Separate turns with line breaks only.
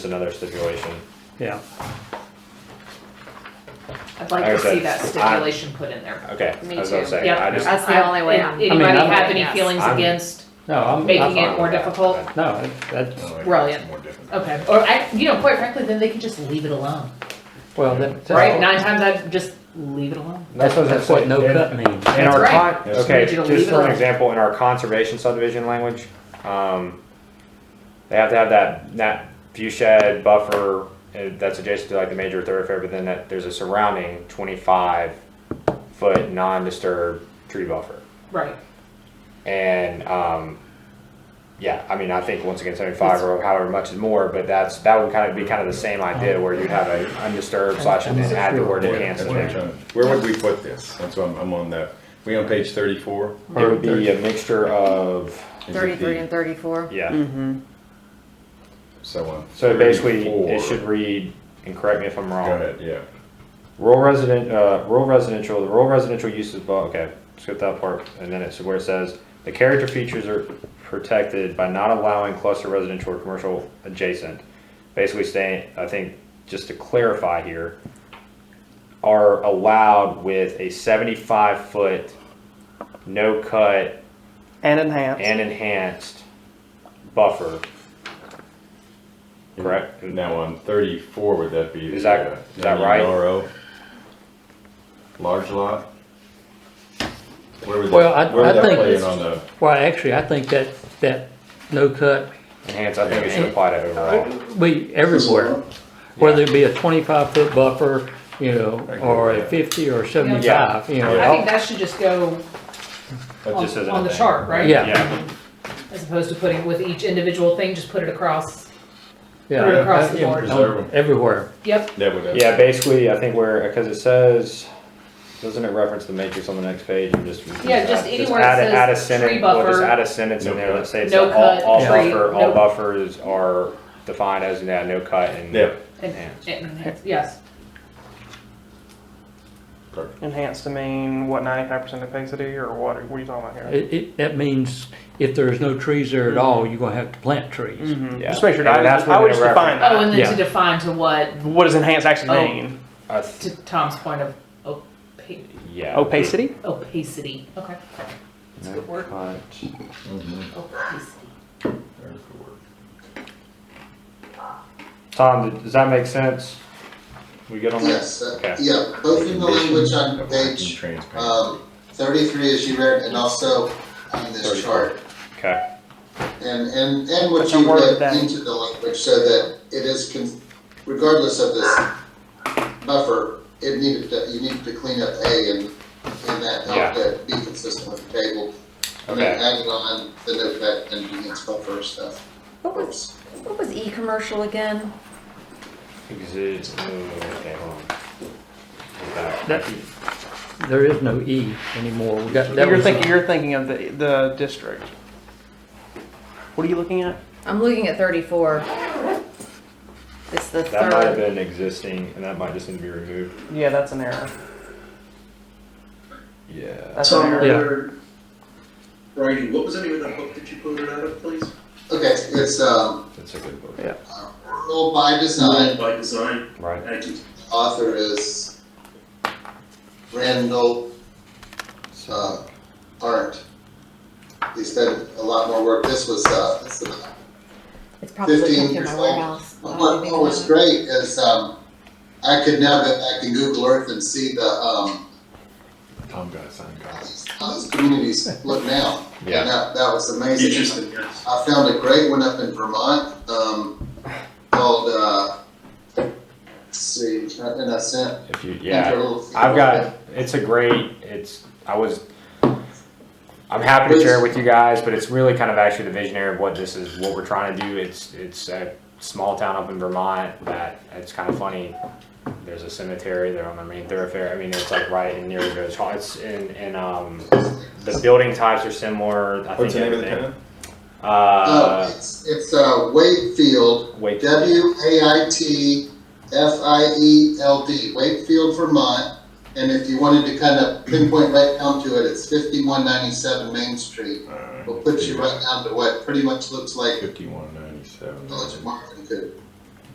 another stipulation.
yeah.
I'd like
Like I
to see
said,
that
I-
stipulation put in there.
Okay,
Me
that's what I'm
too.
saying. I
Yep,
just,
that's the only way.
I mean,
Anybody
I'm-
have any
Yes.
feelings
I'm-
against
No, I'm,
making
I'm,
it more
fine with that.
difficult?
no, that's,
Brilliant.
More difficult.
Okay, or I, you know, quite frankly, then they can just leave it alone,
well, that-
right?
that's,
Nine times I'd just leave it alone.
that's what I'm
that's what
saying.
no
In-
cut means.
In our
right.
con,
Yes.
okay,
Digital
just for
legal.
an example, in our conservation subdivision language, um, they have to have that, that view shed buffer uh, that's adjacent to like the major thoroughfare, but then that, there's a surrounding twenty-five foot non-disturbed tree buffer.
Right.
And, um, yeah, I mean, I think once again, seventy-five or however much is more, but that's, that would kind of be kind of the same idea where you'd have a undisturbed slash and then add the word
Yeah,
enhance
that's
in
what I'm
there.
trying to- Where would we put this? That's what I'm, I'm on that. We on page thirty-four?
It would be a mixture of,
Thirty-three and thirty-four.
yeah,
So on.
so basically, it
34
should read, and correct me if I'm
Go
wrong.
ahead, yeah.
Rural resident, uh, rural residential, the rural residential uses, well, okay, skip that part, and then it's where it says, the character features are protected by not allowing cluster residential or commercial adjacent. Basically saying, I think, just to clarify here, are allowed with a seventy-five foot, no cut,
And enhanced.
and enhanced buffer. Correct?
Now on thirty-four, would that be?
Is that-
uh,
is that right?
WRO? Large lot? Where would that,
Well, I-
where
I
would that
think
play in
it's-
on the,
Well, actually, I think that, that no cut,
Enhanced, I think it should apply to overall.
we, everywhere, whether it be a twenty-five foot buffer, you know, or a fifty or seventy-five, you know.
I
all-
think that should just go
That
on,
just isn't
on
a
the
thing.
chart, right?
Yeah.
Yeah,
As opposed to putting with each individual thing, just put it across.
Yeah,
Put it across the
yeah,
board.
Preserve 'em.
Everywhere,
Yep,
that would.
yeah, basically, I think where, because it says, doesn't it reference the matrix on the next page and just?
Yeah, just anywhere it
add a-
says
add a sentence-
tree
Well, just
buffer.
add a sentence in there,
No
let's say it's
No
all, all
cut, tree,
buffer, all
no-
buffers are defined as, yeah, no cut and.
Yeah,
and,
Enhanced.
and, yes,
perfect.
Enhanced to mean what, ninety-five percent opacity or what, what are you talking about here?
it, it, that means if there's no trees there at
Mm-hmm.
all, you're gonna have to plant trees.
Mhm.
Mm-hmm. Yeah.
Just make sure,
And
I
that's
was- I
within
would just
a
define
oh, and
that.
then to
Yeah.
define to what,
What does enhanced actually
Oh.
mean?
I th-
to Tom's point of opa-
Yeah.
Opacity?
opacity, okay, that's a
No
good word,
cut.
Mhm.
opacity.
Very good work.
Tom, does that make sense? We good on that?
Yes,
Okay.
that- yeah, both in the language on
Condition
page,
of working
um, thirty-three as you read, and also on this
34.
chart.
Okay,
And, and, and what
But the
you
word
read
that-
into the language, so that it is, con- regardless of this buffer, it needed to, you needed to clean up A and, and that
Yeah.
helped it be consistent with the table. And
okay.
then added on the note that and units buffer stuff.
What was, what was e-commercial again?
Exist, oh, okay, hold on. Go back.
That- There is no E anymore, we got, that
You're
was, uh,
thinking, you're thinking of the, the district. What are you looking at?
I'm looking at thirty-four. It's the
That might have
third.
been existing, and that might just need to be removed.
Yeah, that's an error.
Yeah.
That's an error.
Yeah.
Brady, what was the name of that book that you quoted out of, please?
Okay, it's, um,
That's a good book.
rural by design,
By Design,
Right.
thank you.
author is Randall
So,
uh, aren't. He's done a lot more work. This was, uh, this is,
It's probably
15
in
years
my
old.
warehouse. but I
what,
don't even
what was
know.
great is, um, I could now go back to Google Earth and see the, um,
Tom got a sign, guys.
how these communities look now.
Yeah.
And that, that was amazing.
Interesting, yes.
I found a great one up in Vermont, um, called, uh, let's see, and I sent.
If you,
sent her
yeah,
a little-
I've got, it's a great, it's, I was, I'm happy to share it with you guys, but it's really kind of actually the visionary of what this is, what we're trying to do. It's, it's a small town up in Vermont that, it's kind of funny. There's a cemetery there on the main thoroughfare. I mean, it's like right in near the village hall. It's in, and, um, the building types are similar. I
What's the
think
name of the
everything.
town?
Uh,
Uh,
it's, it's, uh, Wakefield,
wait.
W A I T F I E L D, Wakefield, Vermont. And if you wanted to kind of pinpoint right down to it, it's fifty-one ninety-seven Main Street.
All right.
We'll put you right Oh, down to what pretty much looks like
Fifty-one ninety-seven.
Village of Marvin could